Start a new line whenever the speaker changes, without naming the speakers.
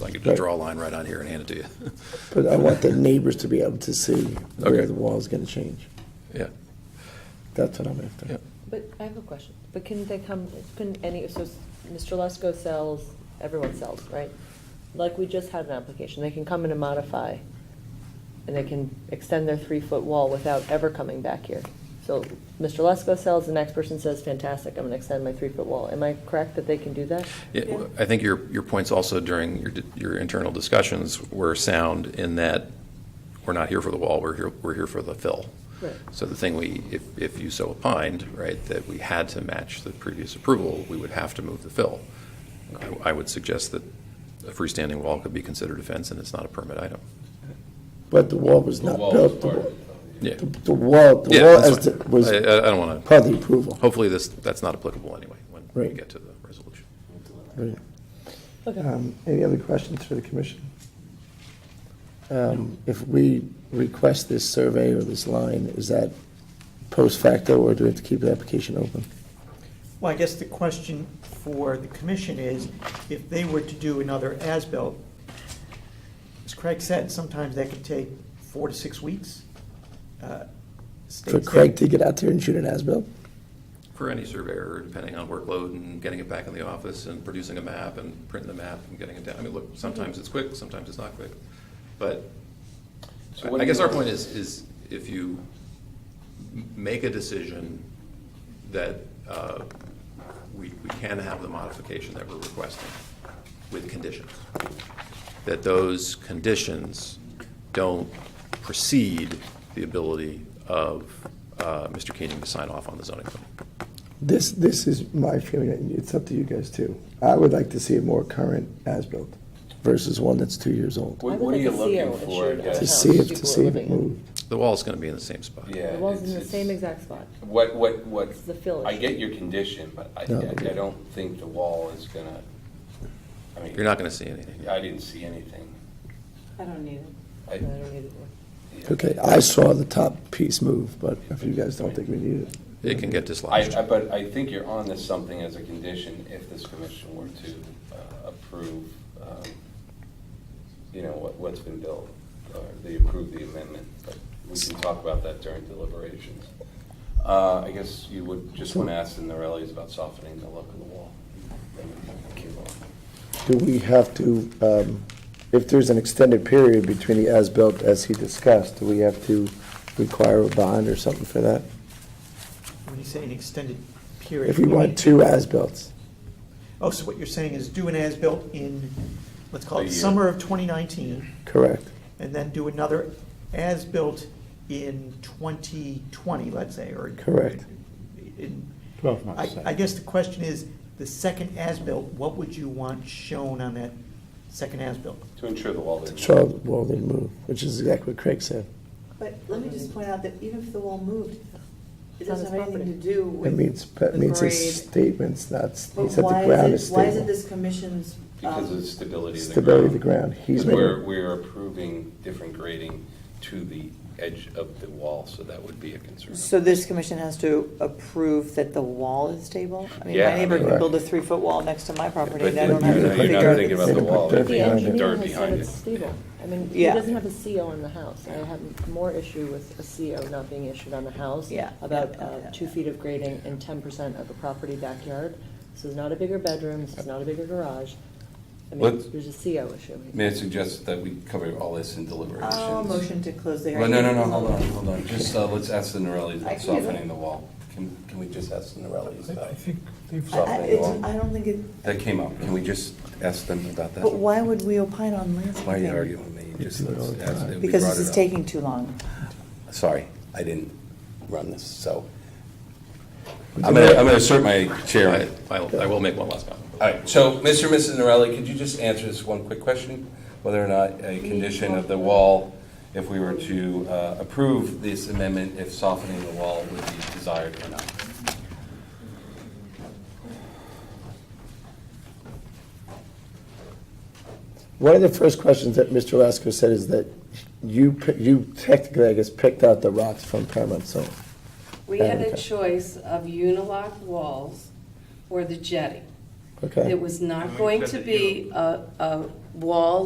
I could just draw a line right out here and hand it to you.
But I want the neighbors to be able to see where
Okay.
the wall's gonna change.
Yeah,
That's what I'm after.
Yeah.
But I have a question, but couldn't they come, couldn't any, so Mr. Lesko sells, everyone sells, right? Like, we just had an application, they can come in and modify, and they can extend their three-foot wall without ever coming back here. So Mr. Lesko sells, the next person says, fantastic, I'm gonna extend my three-foot wall. Am I correct that they can do that?
Yeah, well, I think your, your points also during your, di- your internal discussions were sound in that we're not here for the wall, we're here, we're here for the fill.
Right.
So the thing we, if, if you so opined, right, that we had to match the previous approval, we would have to move the fill. I, I would suggest that a freestanding wall could be considered a fence and it's not a permit item.
But the wall was not built, the wa-
Yeah.
the the wall, the
Yeah,
wall
that's
as the-
fine.
was
I, I I don't want to,
part of the approval.
hopefully this, that's not applicable anyway when we
Right.
get to the resolution.
Right.
Okay,
Um, Any other questions for the commission? Um, If we request this survey or this line, is that post facto, or do we have to keep the application open?
Well, I guess the question for the commission is, if they were to do another as-built, as Craig said, sometimes that could take four to six weeks. Uh,
For
states
Craig
that-
to get out there and shoot an as-built?
For any surveyor, depending on workload and getting it back in the office and producing a map and printing the map and getting it down. I mean,
Mm-hmm.
look, sometimes it's quick, sometimes it's not quick. But
So what
I I
do
guess
you-
our point is, is if you m- make a decision that uh, we, we can have the modification that we're requesting with conditions, that those conditions don't precede the ability of uh, Mr. Keenan to sign off on the zoning plan.
This, this is my feeling, and it's up to you guys too. I would like to see a more current as-built versus one that's two years old.
I
What,
would
what are
like
you
to see a-
looking
a
for?
shoot
guys?
To
house
see if, to
people
see if it
living in.
moved.
The wall's going to be in the same spot.
Yeah.
the wall's in the
it's-
same
it's-
exact spot.
What, what, what?
It's the fill
I
issue.
get your condition, but I,
No.
I I don't think the wall is gonna, I mean.
You're not going to see anything.
I didn't see anything.
I don't need it.
I
I-
don't need it.
yeah.
Okay, I saw the top piece move, but if you guys don't think we need it.
It can get
I,
dislodged.
I, but I think you're on to something as a condition if this commission were to uh, approve, um, you know, what, what's been built, or they approve the amendment, but we can talk about that during deliberations. Uh, I guess you would just want to ask the Norellis about softening the look of the wall.
Do we have to, um, if there's an extended period between the as-built as he discussed, do we have to require a bond or something for that?
When you say an extended period.
If we want two as-bills,
Oh, so what you're saying is do an as-built in, let's call
A
it
year.
summer of 2019,
correct?
and then do another as-built in 2020, let's say, or.
Correct.
In
Twelve
I, I guess the question is, the second as-built, what would you want shown on that second as-built?
To ensure the wall didn't.
Sure, the wall didn't move, which is exactly what Craig said.
But let me just point out that even if the wall moved, it
It's on
doesn't
his
have anything
property.
to do
It
with
means,
the
it means his
grade.
statements, not, he said
But
the
why
ground is
is it, why is it
stable.
this commission's?
Because
um,
of the stability of the ground.
Stability of the ground, he's
Because we're,
making-
we're approving different grading to the edge of the wall, so that would be a concern.
So this commission has to approve that the wall is stable? I mean,
Yeah.
my neighbor can
Correct.
build a three-foot wall next to my property,
But
and I don't have
you're
to
not-
figure
you're
out
not
if
thinking
it's-
about the wall.
Yeah.
The engineer
dirt
has said
behind
it's
it.
stable. I mean, he
Yeah.
doesn't have a CO in the house. I have more issue with a CO not being issued on the house.
Yeah.
About
Yeah, yeah,
uh,
yeah,
two
yeah.
feet of grading and ten percent of a property backyard. This is not a bigger bedroom, this is not a bigger garage. I mean,
Let's-
there's a CO issue.
May I suggest that we cover all this in deliberations?
Oh, motion to close the
Well,
hearing.
no, no, no, hold on, hold on, just, uh, let's ask the Norellis
I
about
can do that.
softening the wall. Can, can we just ask the Norellis about
I- I,
softening the
it's,
wall?
I don't think it,
That came up, can we just ask them about that?
but why would we opine on landscaping?
Why are you arguing with me? Just
do it all
let's
the
ask-
time.
we
Because
brought
this
it
is
up.
taking too long.
Sorry, I didn't run this, so.
Would
I'm
you
gonna,
like-
I'm gonna assert my chair.
I,
All
I'll- I will make one last comment.
right, so, Mr. and Mrs. Norelli, could you just answer this one quick question? Whether or not a condition of the wall, if we were to uh, approve this amendment, if softening the wall would be desired or not?
One of the first questions that Mr. Lasko said is that you, pi- you technically, I guess, picked out the rocks from Paramount Zone.
We had
Okay.
a choice of unilock walls or the jetty.
Okay?
It was not going to be a, a wall